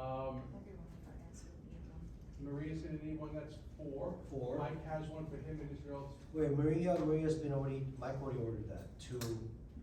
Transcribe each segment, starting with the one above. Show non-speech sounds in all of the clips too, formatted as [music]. Um, vicinity, one that's four. Four. Mike has one for him and his girls. Wait, Maria, Maria's been already, Mike already ordered that, two,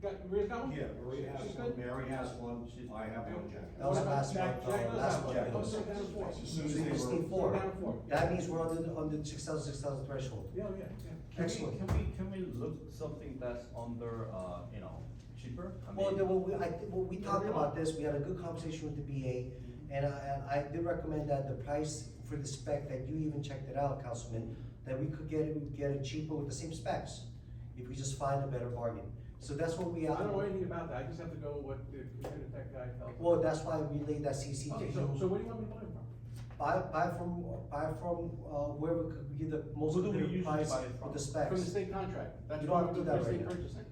Got, Maria's got one? Yeah, Maria has She's one, good? Mary has one, I have one, Jack. That was What about last Jack? month, uh, Jack does last have one. month. Oh, so down to four. As so soon as they we just were- need four. Down to four. That means we're under, under six thousand, six thousand threshold. Yeah, yeah, yeah. Can we, Excellent. can we, can we look something that's under, uh, you know, cheaper? I Well, mean- then, what we, I, thi- what we talked Yeah. about this, we had a good conversation with the BA, and I, and I did recommend that the price for the spec, that you even checked it out, Councilman, that we could get, it- get it cheaper with the same specs, if we just find a better bargain. So that's what we, I don't know well, anything about that, I just have to go with what the computer tech guy tells me. that's why we laid that CC to Okay, you. so, so what do you want me to buy it from? Buy, buy from, buy from, uh, wherever could give the most Who do we competitive usually price buy it with from? the specs. From the state contract, that's You why we don't do do that for right state now. purchasing.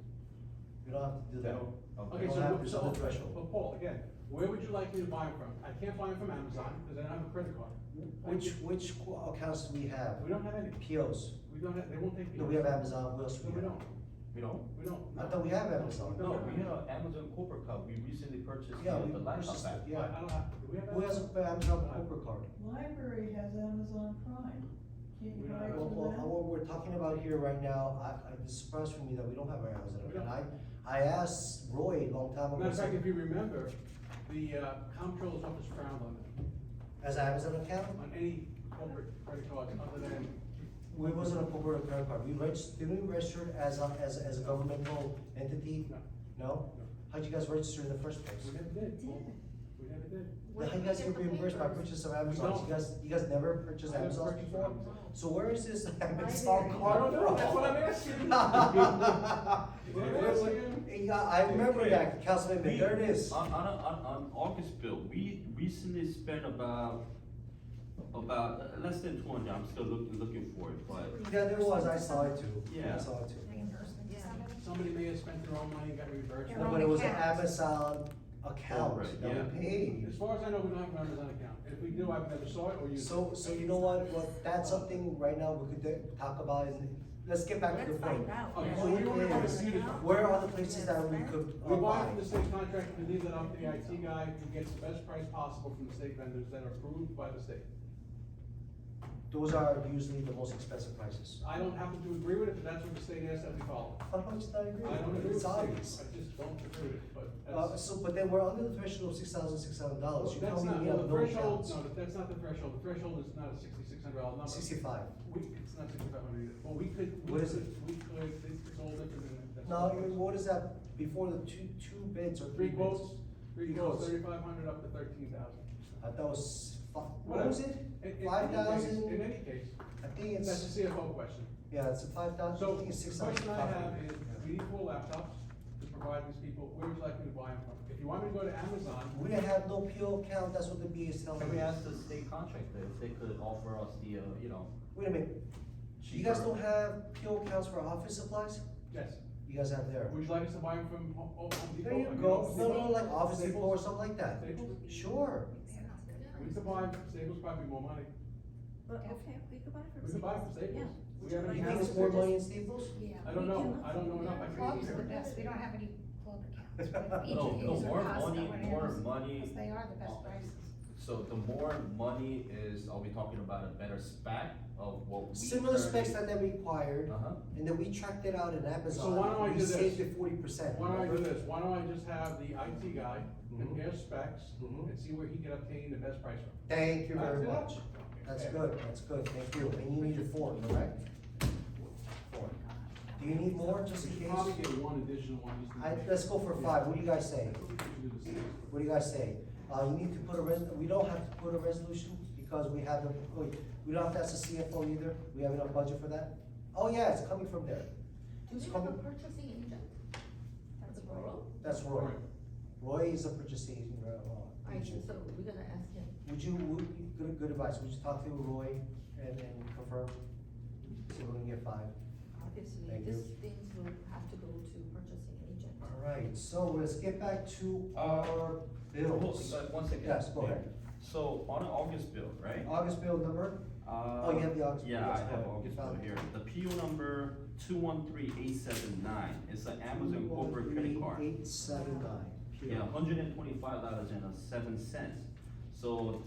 You don't have to do that. Okay, You so, don't have wh- so, to set the but threshold. Paul, again, where would you like me to buy them from? I can't buy them from Amazon, because I don't have a credit card. Which, which accounts do we have? We don't have any, POs. we don't have, they won't take. No, we have Amazon, what else No, we we have? don't, We don't? we don't. I thought we have Amazon. No, we have an Amazon corporate card, we recently purchased the Yeah, we the laptop purchased back. I, it, yeah. I don't have, do we have? Who has Amazon? an Amazon corporate card? Library has Amazon Prime. Can't We you don't buy have it Well, well, from what we're talking about here right now, I, I, it's a surprise for me that we don't have our Amazon. We And don't. I, I asked Roy a long time ago. Matter of fact, so- if you remember, the, uh, comptroller's office frowned on it, As an Amazon account, on any corporate credit cards other than, we wasn't a corporate credit card. We registered, didn't we register as a, as, as a governmental entity? No. No? How'd you guys register in the first place? we never did. Did. We never did. Then How you guys get reimbursed by purchase of Amazon? don't. You guys, you guys never purchased I never Amazon purchased before? [laughs] Amazon. So where is this Amazon Library. card I don't know, from? that's [laughs] what I'm asking. Where- where- Yeah, I remember that, Councilman, but We- there it is. Uh, On, on, on, on August bill, we recently spent about, about, uh, less than two hundred, I'm still looking, looking for it, but. Yeah, there was, I saw it too, I Yeah. saw it too. Reimbursement to somebody? Somebody may have spent their own money and got reimbursed. Their No, own but it was an account. Amazon account Corporate, that we yeah. paid. As far as I know, we don't have an Amazon account. If we do, I've never saw it or used it. So, so you know what, well, that's something right now we could de- talk about and let's get back to the Let's point. find out. Okay, so Who we only want cares? to see it from. Where are the places that we could uh, We buy buy? from the state contract, we leave that up to the IT guy who gets the best price possible from the state vendors that are approved by the state. Those are usually the most expensive prices. I don't happen to agree with it, but that's what the state asks that we follow. How much did I agree? I don't agree with It's the state, I obvious. just don't agree with it, but Uh, that's. so, but then we're under the threshold of six thousand six hundred dollars, you That's tell me not, we well, have the no threshold, accounts. no, but that's not the threshold. The threshold is not a sixty-six hundred dollar number. Sixty-five. We, it's not sixty-five hundred either. Well, we could, we What is could, we could, it's it's all different than. that's all Now, it you- is. what is that, before the two, two bids or Three three bids? quotes, three quotes, Quotes. thirty-five hundred up to thirteen thousand. I thought it was fi- what was it? In any Five thousand? case, I think that's it's, the CFO question. yeah, it's a five thousand, I So, think it's six the thousand. question I have is, we need four laptops to provide these people, where would you like me to buy them from? If you want me to go to Amazon, We didn't have no PO account, that's what the B is telling Can we me. ask the state contractor if they could offer us the, uh, you know, Wait a minute, cheaper? you guys don't have PO accounts for office supplies? yes, You guys have there. would you like us to buy them from Ho- Ho- Home Depot? There you I mean, go, Home no, Depot? no, like Office Depot or Staples? something like that. Staples? Sure. We could buy, from Staples probably more money, But, okay, we could buy from. we could buy from Staples. Staples. Yeah. We Would have you any You like think us to it's more just- money in Staples? Yeah, I don't we know, can- I don't know enough, I couldn't Clubs use are the it. best, we don't have any club accounts. but [laughs] No, Oh. each no, is a more cost money, of what it more is, money. Because they are the best prices. So the more money is, are we talking about a better spec of what we? Similar specs currently- that they required, Uh-huh. and then we tracked it out in Amazon. why don't I we do this? saved it forty percent. Why don't I do this, why don't I just have the IT guy Mm-hmm. compare specs Mhm. and see where he can obtain the best price from? Thank you very much. That's it. Okay. That's good, that's good, thank you. And you need a fork, correct? Fork. Do you need more, just We in should case? probably get one additional one, just. in I, case. let's go for Yeah. five, what do you guys say? We should do the same. What do you guys say? Uh, you need to put a res, we don't have to put a resolution because we have the, wait, we don't have to ask the CFO either, we have enough budget for that? Oh yeah, it's coming from there. Do we It's have a coming, purchasing agent? That's that's Roy. Alright. Roy is a purchasing, uh, I agent. so we're gonna ask him. Would you, would, good, good advice, would you talk to Roy and, and confirm? So we're gonna get five. Obviously, Thank you. these things will have to go to purchasing agent. Alright, so let's get back to our bills. Hold on, One second. Yes, go ahead. So on an August bill, right? August bill number? Oh, you have the August bill, Yeah, yes, I have go ahead. August bill Found it. here. The PO number two one three eight seven nine. It's an Amazon Two, one, corporate credit three, card. Eight, seven, nine. Yeah, hundred and twenty-five dollars and seven cents. So